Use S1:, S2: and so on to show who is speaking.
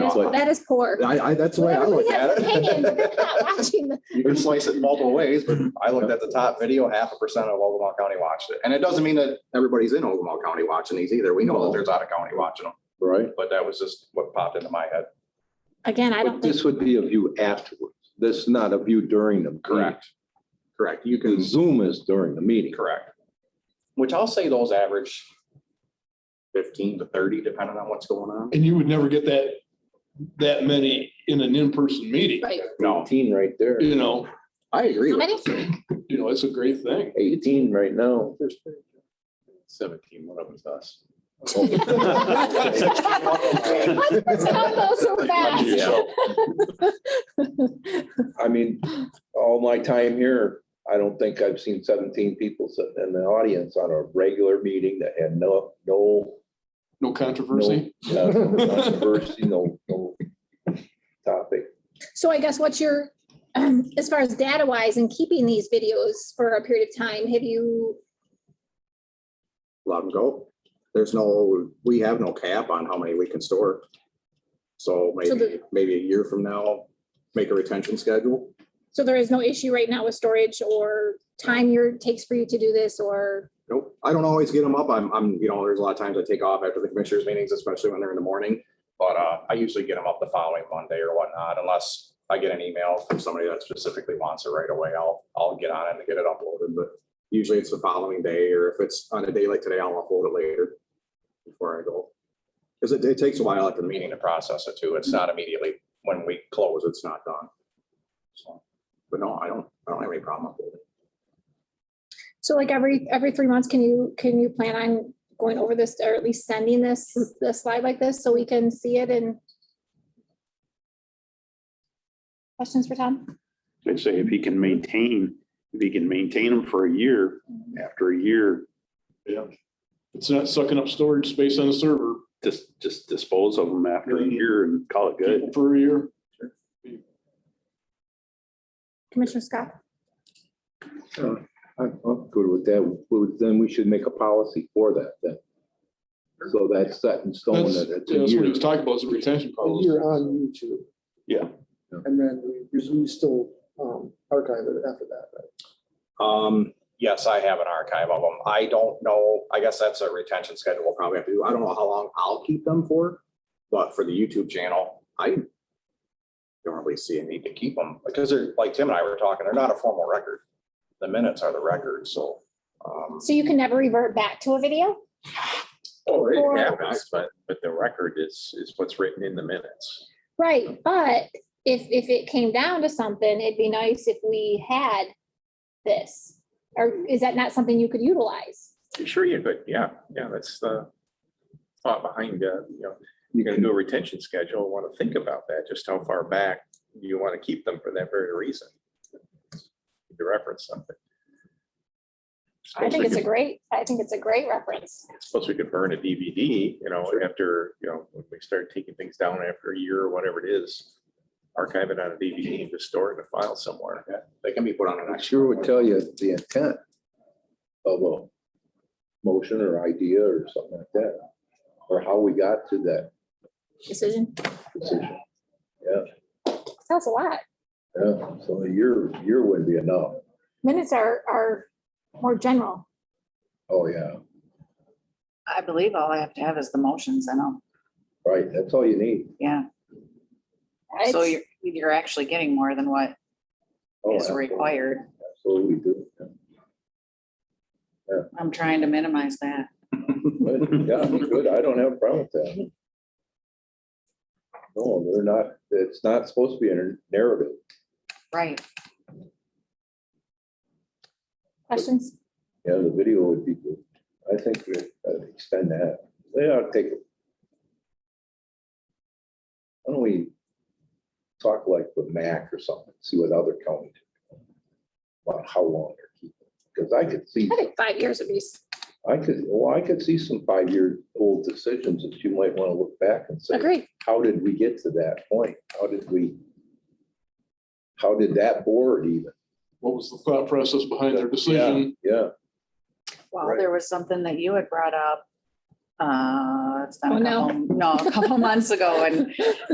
S1: It's like,
S2: That is poor.
S1: I, I, that's the way I
S2: Everybody
S1: look
S2: has
S1: at
S2: an opinion, but they're not
S1: it.
S2: watching the-
S1: You
S3: We
S1: can-
S3: slice it multiple ways, but I looked at the top video, half a percent of Ogama County watched it. And it doesn't mean that everybody's in Ogama County watching these either. We know that there's out of county watching them,
S4: right?
S3: but that was just what popped into my head.
S2: Again, I don't
S4: But
S2: think,
S4: this would be a view afterwards. This is not a view during the. meeting.
S3: Correct. You
S4: Because
S3: can,
S4: Zoom is during the meeting.
S3: correct. Which I'll say those average fifteen to thirty, depending on what's going on.
S5: And you would never get that, that many in an in-person meeting,
S2: right.
S3: No,
S4: Eighteen right there.
S5: you know,
S1: I agree.
S2: How
S1: with
S2: many?
S5: you know, it's a great thing.
S4: Eighteen right now.
S3: seventeen, one of them's us.
S2: One person don't go so fast.
S4: I mean, all my time here, I don't think I've seen seventeen people sitting in the audience on a regular meeting that had no, no
S5: No controversy.
S4: uh, no controversy, no, no topic.
S2: So I guess what's your, um, as far as data wise and keeping these videos for a period of time, have you,
S1: let them go. There's no, we have no cap on how many we can store. So maybe,
S2: the-
S1: maybe a year from now, make a retention schedule.
S2: so there is no issue right now with storage or time your, takes for you to do this or?
S1: Nope, I don't always get them up. I'm, I'm, you know, there's a lot of times I take off after the commissioners meetings, especially when they're in the morning
S3: But uh, I usually get them up the following Monday or whatnot, unless I get an email from somebody that specifically wants it right away, I'll, I'll get on it and get it uploaded, but.
S1: usually it's the following day, or if it's on a day like today, I'll upload it later before I go. Because it, it takes a while after the
S3: Meaning
S1: meeting,
S3: to process it too, it's not immediately when we close,
S1: because it's not done.
S3: so.
S1: But no, I don't, I don't have any problem with it.
S2: So like every, every three months, can you, can you plan on going over this or at least sending this, the slide like this so we can see it and? Questions for Tom?
S6: I'd say if he can maintain, if he can maintain them for a year, after a year,
S5: Yeah. It's not sucking up storage space on the server
S6: just, just dispose of them after a year and call it good.
S5: for a year.
S2: Commissioner Scott?
S4: I'm I'm good with that. Well, Then we should make a policy for that then. So that's set in stone
S5: That's,
S4: that
S5: yeah,
S4: it's a
S5: that's what he
S4: year.
S5: was talking about, is the retention policy.
S7: You're on YouTube.
S6: Yeah.
S4: Yeah.
S7: And then we resume still um, archive it after that, right?
S3: Um, yes, I have an archive of them, I don't know, I guess that's a retention schedule we'll probably have to do, I don't know how long I'll keep them for. But for the YouTube channel, I don't really see a need to keep them, because they're, like Tim and I were talking, they're not a formal record. The minutes are the record, so. um,
S2: So you can never revert back to a video?
S8: Oh,
S2: Or-
S8: it happens, but, but the record is, is what's written in the minutes.
S2: Right, but if, if it came down to something, it'd be nice if we had this. Or is that not something you could utilize?
S8: Sure, you could, yeah, yeah, that's the thought behind, uh, you know, you're gonna do a retention schedule, want to think about that, just how far back you want to keep them for that very reason. To reference something.
S2: I
S8: Suppose
S2: think
S8: we
S2: it's a
S8: could,
S2: great, I think it's a great reference.
S8: suppose we could burn a DVD, you know, after, you know, when we start taking things down after a year or whatever it is. Archive it on a DVD and just store it in a file somewhere.
S1: They can be put on an
S4: I
S1: actual.
S4: sure would tell you the intent of a motion or idea or something like that, or how we got to that
S2: Decision.
S4: decision. Yeah,
S2: That's a lot.
S4: yeah, so a year, year wouldn't be enough.
S2: Minutes are, are more general.
S4: Oh, yeah,
S9: I believe all I have to have is the motions and all,
S4: right, that's all you need.
S9: yeah. So
S2: It's-
S9: you're, you're actually getting more than what
S4: Oh,
S9: is
S4: absolutely.
S9: required.
S4: Absolutely do. yeah.
S9: I'm trying to minimize that.
S4: But, Yeah, good, I don't have a problem with that. No, they're not, it's not supposed to be a narrative.
S9: Right.
S2: Questions?
S4: Yeah, the video would be good. I think we uh, extend that. Yeah, I'll take it. Why don't we talk like with Mac or something, see what other counties do about how long they're keeping. Because I could see,
S2: I think five years would be, s-
S4: I could, well, I could see some five-year-old decisions that you might want to look back and say,
S2: agreed.
S4: how did we get to that point? How did we? How did that board even?
S5: What was the thought process behind their decision?
S4: Yeah,
S9: Well,
S4: Right.
S9: there was something that you had brought up. Uh, it's
S2: Oh,
S9: not a
S2: no.
S9: couple, no, a couple months ago and